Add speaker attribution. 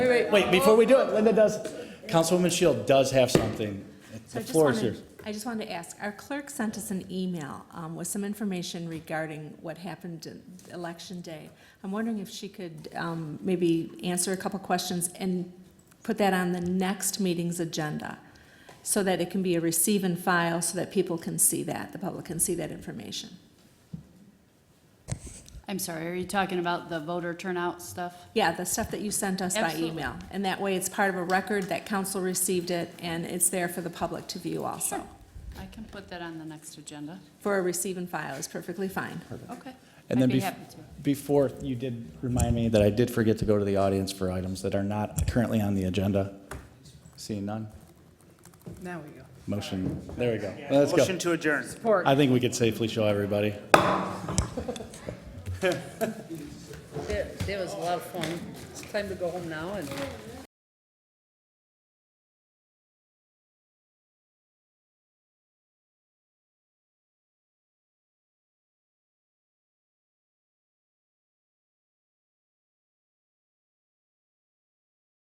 Speaker 1: Wait, wait, before we do it, Linda does, Councilwoman Shield does have something. The
Speaker 2: So I just
Speaker 1: floor is
Speaker 2: wanted,
Speaker 1: yours.
Speaker 2: I just wanted to ask, our clerk sent us an email um, with some information regarding what happened in election day. I'm wondering if she could um, maybe answer a couple questions and put that on the next meeting's agenda, so that it can be a receive and file, so that people can see that, the public can see that information.
Speaker 3: I'm sorry, are you talking about the voter turnout stuff?
Speaker 2: Yeah, the stuff that you sent us by
Speaker 3: Absolutely.
Speaker 2: email. And that way, it's part of a record that council received it, and it's there for the public to view also.
Speaker 3: I can put that on the next agenda.
Speaker 2: For a receive and file is perfectly fine.
Speaker 3: Okay.
Speaker 1: And
Speaker 3: I'd
Speaker 1: then
Speaker 3: be
Speaker 1: bef-
Speaker 3: happy to.
Speaker 1: Before, you did remind me that I did forget to go to the audience for items that are not currently on the agenda. Seeing none,
Speaker 4: Now we go.
Speaker 1: motion, there we go. Let's go.
Speaker 5: Motion to adjourn.
Speaker 4: Support.
Speaker 1: I think we could safely show everybody.
Speaker 4: That that was a lot of fun. It's time to go home now and